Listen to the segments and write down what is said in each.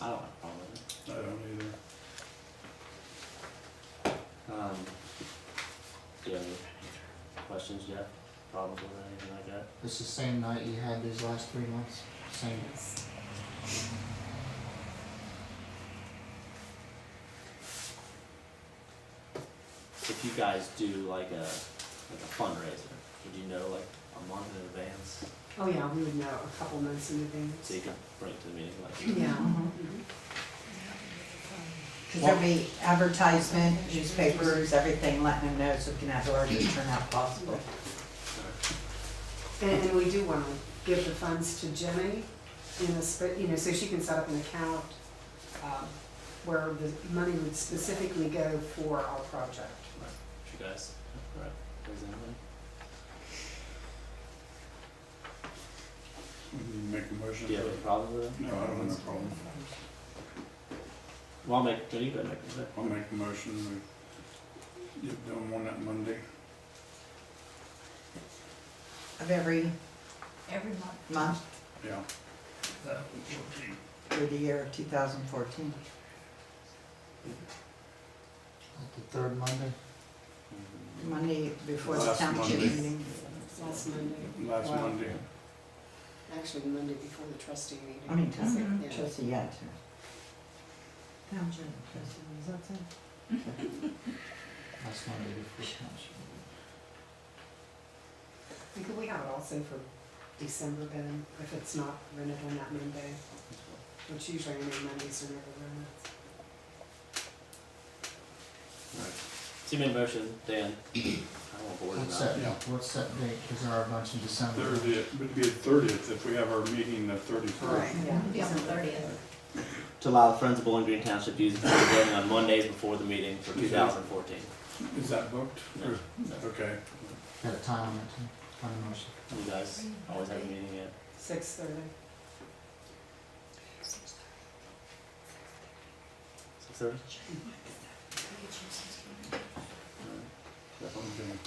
Um, Do you have any questions, Jeff? Problems with it, anything like that? It's the same night you had these last three months, same. If you guys do like a, like a fundraiser, would you know like a month in advance? Oh, yeah, we would know a couple months in So advance. you can bring it to the meeting like, Yeah. Mm-hmm. Because there'll be advertisement, newspapers, everything, letting them know so we can have the largest turnout possible. And, and we do wanna give the funds to Jenny in a sp you know, so she can set up an account, um, where the money would specifically go for our project. if you guys, alright, does anybody? You Make a motion. Do you have any problem with it? No, I don't have a problem. Well, I'll make, can you go ahead and make it? I'll make a motion. We get done one that Monday. Of every Every month. month Yeah. through the year of two thousand fourteen. Like the third Monday, Monday before the Last township Monday. meeting. Last Monday, Last Wow. Monday. actually Monday before the trustee meeting. I mean, trustee, Yeah. trustee, yeah. tr- Township trustee, is that so? last Monday before township. And Could we have it also for December then, if it's not rented on that Monday, which usually any Mondays are never rented. So you made a motion, Dan, I don't want board What's about that, it. Yeah. what's that date, cause there are a bunch in December. Thirtieth, would be the thirtieth if we have our meeting the thirty-first. Yeah. It'll be on the thirtieth. To allow the Friends of Bowling Green Township to use the town building on Mondays before the meeting for two thousand fourteen. Is that booked? Or- Okay. Got a time on it too, on the motion. You guys always have a meeting at, Six thirty. six thirty? Okay.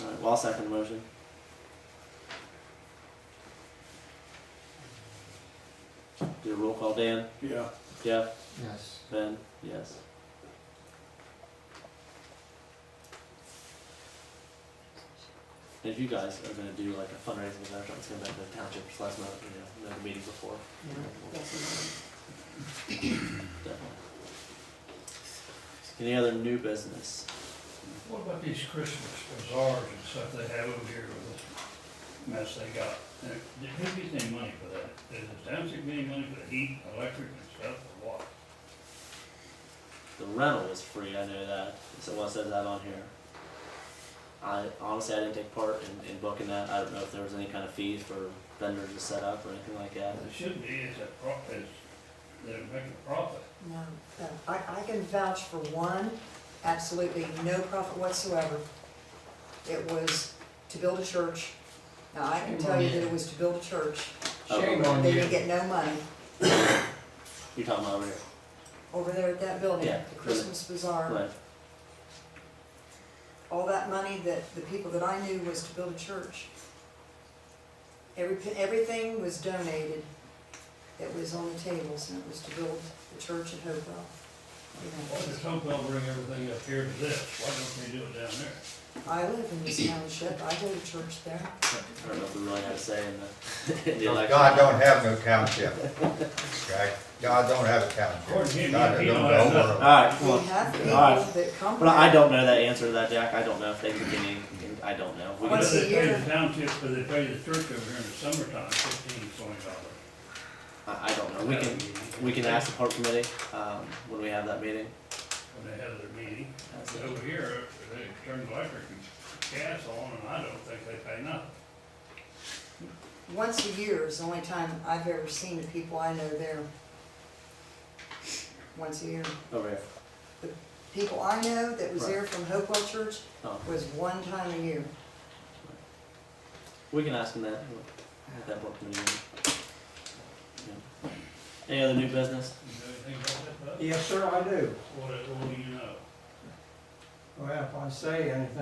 Alright, well, I'll second the motion. Do a roll call, Dan, Yeah, Jeff, Yes, Ben, yes. And If you guys are gonna do like a fundraising event, let's go back to the township, just let us know, you know, know the meeting before, Yeah, that's definitely. Any other new business? What about these Christmas bazaars and stuff they have over here with this mess they got? There- Did who gets any money for that? Does the township get any money for the heat, electric and stuff, or what? The rental was free, I know that, so what says that on here? I honestly, I didn't take part in, in booking that, I don't know if there was any kind of fees for vendors to set up or anything like that. It should be, it's a profit, it's, they're making a profit. No, no. I, I can vouch for one, absolutely no profit whatsoever. It was to build a church. Now, I can tell you that it was to build a church. Oh, Shame They didn't get no money Oh, You're talking about over here, over there at that building, Yeah. the Christmas bazaar. right, All that money that the people that I knew was to build a church. Every, everything was donated that was on the tables, and it was to build the church at Hopewell. You know, Why does Hopewell bring everything up here to this? Why don't they do it down there? I live in this township, I go to church there. I don't know if we really had a say in the, in the election. Oh, God don't have no township, okay? God don't have a According to township. him, God he don't don't know have where- nothing. Alright, We well, have people alright. that come but I there. don't know that answer to that, Jack, I don't know if they can get any, I don't know. We can- Why Once do a they pay year. the township, but they pay the church over here in the summertime, fifteen, twenty dollars? I, I don't know, Uh, we can, we can ask the park committee, um, when we have that meeting. When they have their meeting. That's But it. Over here, they turn electric and gas on, and I don't think they pay nothing. Once a year is the only time I've ever seen the people I know there. Once a year. Over here, People I know that was Right. there from Hopewell Church oh. was one time a year. We can ask him that. At that board meeting. Yeah. Any other new business? You know anything about that, bud? Yes, sir, I do. What, what do you know? Well, if I say anything